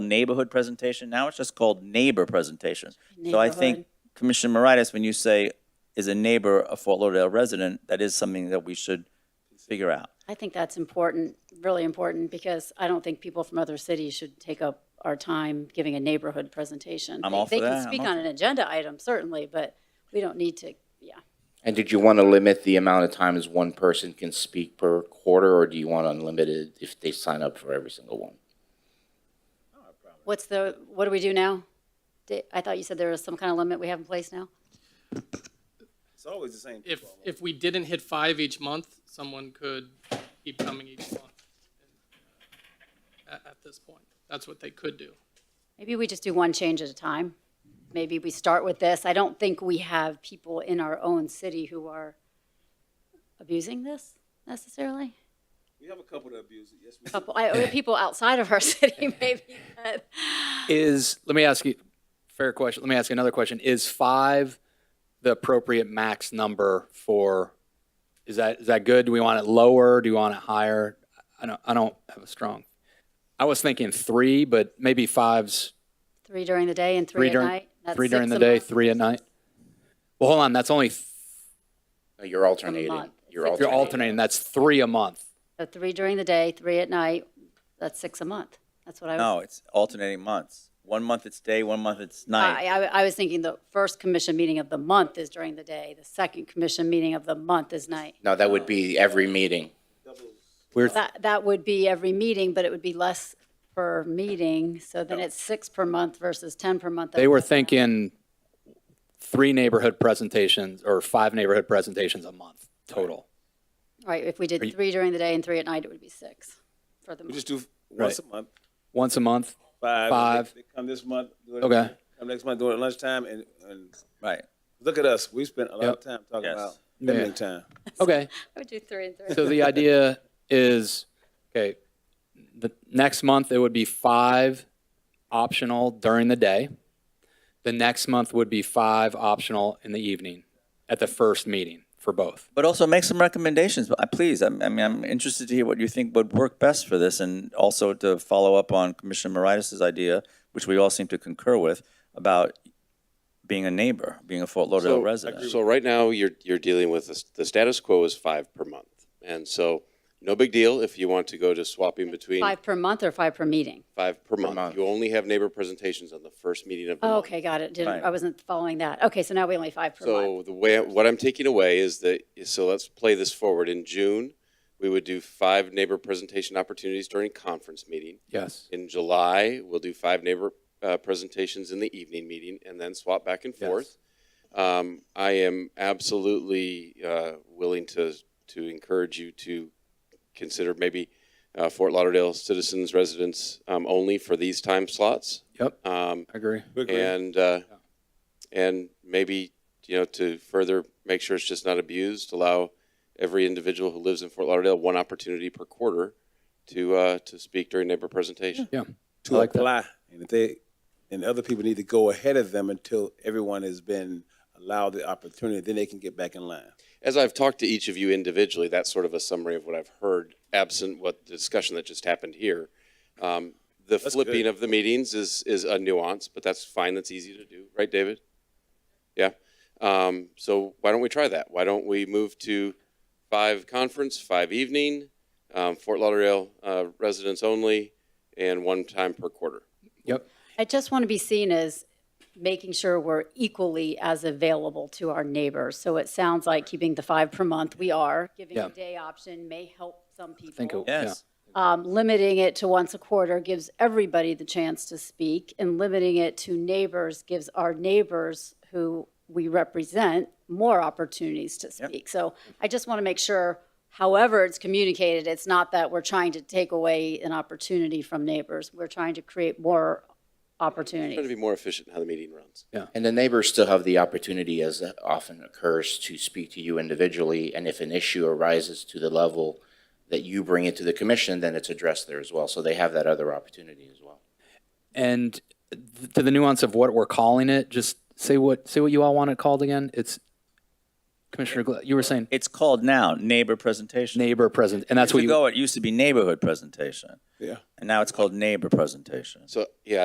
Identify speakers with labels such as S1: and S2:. S1: neighborhood presentation. Now it's just called neighbor presentation. So I think,
S2: Neighborhood.
S1: Commissioner Moritas, when you say, is a neighbor a Fort Lauderdale resident, that is something that we should figure out.
S2: I think that's important, really important, because I don't think people from other cities should take up our time giving a neighborhood presentation.
S1: I'm
S2: They-
S1: all for
S2: They
S1: that.
S2: can
S1: I'm
S2: speak
S1: all
S2: on an agenda item, certainly, but we don't need to, yeah.
S3: And did you want to limit the amount of times one person can speak per quarter, or do you want unlimited if they sign up for every single one?
S2: What's the, what do we do now? Di- I thought you said there was some kind of limit we have in place now?
S4: It's always the same.
S5: If, if we didn't hit five each month, someone could keep coming each month uh, at, at this point. That's what they could do.
S2: Maybe we just do one change at a time. Maybe we start with this. I don't think we have people in our own city who are abusing this necessarily.
S4: We have a couple that abuse it, yes, we do.
S2: Couple, I, or people outside of our city maybe, but
S6: Is, let me ask you, fair question, let me ask you another question. Is five the appropriate max number for, is that, is that good? Do we want it lower? Do we want it higher? I don't, I don't have a strong, I was thinking three, but maybe five's
S2: three during the day and
S6: three
S2: three at
S6: during,
S2: night. That's
S6: three
S2: six
S6: during the
S2: a
S6: day,
S2: month.
S6: three at night. Well, hold on, that's only, th-
S3: No, You're alternating.
S2: month.
S3: You're
S2: It's
S6: you're
S2: Alternate.
S3: alternating.
S6: alternating, that's three a month.
S2: So Three during the day, three at night, that's six a month. That's what I was.
S1: No, it's alternating months. One month it's day, one month it's
S2: I,
S1: night.
S2: I, I was thinking the first commission meeting of the month is during the day. The second commission meeting of the month is night.
S3: No, that would be every meeting.
S6: We're,
S2: That, that would be every meeting, but it would be less per meeting, so then it's six per month versus 10 per month.
S6: they were thinking three neighborhood presentations or five neighborhood presentations a month total.
S2: Right, if we
S6: Are
S2: did
S6: you-
S2: three during the day and three at night, it would be six for the
S4: We
S2: month.
S4: just do once a
S6: Right.
S4: month,
S6: Once a month?
S4: five.
S6: Five.
S4: They come this month. do it-
S6: Okay.
S4: Come next month, do it at lunchtime, and, and
S1: Right.
S4: look at us, we spent a lot
S6: Yep.
S4: of time talking
S1: Yes.
S4: about
S6: Yeah.
S4: limiting time.
S6: Okay,
S2: I would do three and three.
S6: so the idea is, okay, the next month it would be five optional during the day. The next month would be five optional in the evening at the first meeting for both.
S1: But also make some recommendations, but, uh, please. I'm- I mean, I'm interested to hear what you think would work best for this, and also to follow up on Commissioner Moritas' idea, which we all seem to concur with, about being a neighbor, being a Fort Lauderdale resident.
S7: So right now, you're, you're dealing with, this- the status quo is five per month. And so, no big deal if you want to go to swapping between
S2: Five per month or five per meeting?
S7: five per
S3: month.
S7: month. You only have neighbor presentations on the first meeting of the
S2: Oh,
S7: month.
S2: Okay, got it. Didn't,
S1: Right.
S2: I wasn't following that. Okay, so now we only five per month.
S7: So the way, what I'm taking away is that, so let's play this forward. In June, we would do five neighbor presentation opportunities during conference meeting.
S6: Yes.
S7: In July, we'll do five neighbor uh, presentations in the evening meeting and then swap back and
S6: Yes.
S7: forth. Um, I am absolutely uh, willing to, to encourage you to consider maybe uh, Fort Lauderdale citizens, residents um, only for these time slots.
S6: Yep,
S7: Um,
S6: I agree.
S4: We agree.
S7: and uh, and maybe you know to further make sure it's just not abused, allow every individual who lives in Fort Lauderdale one opportunity per quarter to uh, to speak during neighbor presentation.
S6: Yeah. I
S4: To
S6: like that.
S4: apply, and if they, and other people need to go ahead of them until everyone has been allowed the opportunity, then they can get back in line.
S7: As I've talked to each of you individually, that's sort of a summary of what I've heard, absent what the discussion that just happened here. Um, the flipping of the meetings is is a nuance, but that's fine. That's easy to do, right, David? Yeah. Um, so why don't we try that? Why don't we move to five conference, five evening, um, Fort Lauderdale uh, residents only, and one time per quarter?
S6: Yep.
S2: I just want to be seen as making sure we're equally as available to our neighbors. So it sounds like keeping the five per month, we are. Giving
S6: Yeah.
S2: a day option may help some people.
S6: think it-
S1: Yes,
S2: Um, Limiting it to once a quarter gives everybody the chance to speak, and limiting it to neighbors gives our neighbors who we represent more opportunities to speak. So I just want to make sure, however it's communicated, it's not that we're trying to take away an opportunity from neighbors. We're trying to create more
S7: Trying to
S2: opportunities.
S7: be more efficient in how the meeting runs.
S3: And the neighbors still have the opportunity, as that often occurs, to speak to you individually. And if an issue arises to the level that you bring it to the commission, then it's addressed there as well. So they have that other opportunity as well.
S6: And th- to the nuance of what we're calling it, just say what, say what you all want it called again. It's, Commissioner, Gla- you were saying
S1: it's called now neighbor presentation.
S6: neighbor present, and that's what
S1: Years
S6: you.
S1: ago, it used to be neighborhood presentation,
S4: Yeah.
S1: and now it's called neighbor presentation.
S7: So yeah,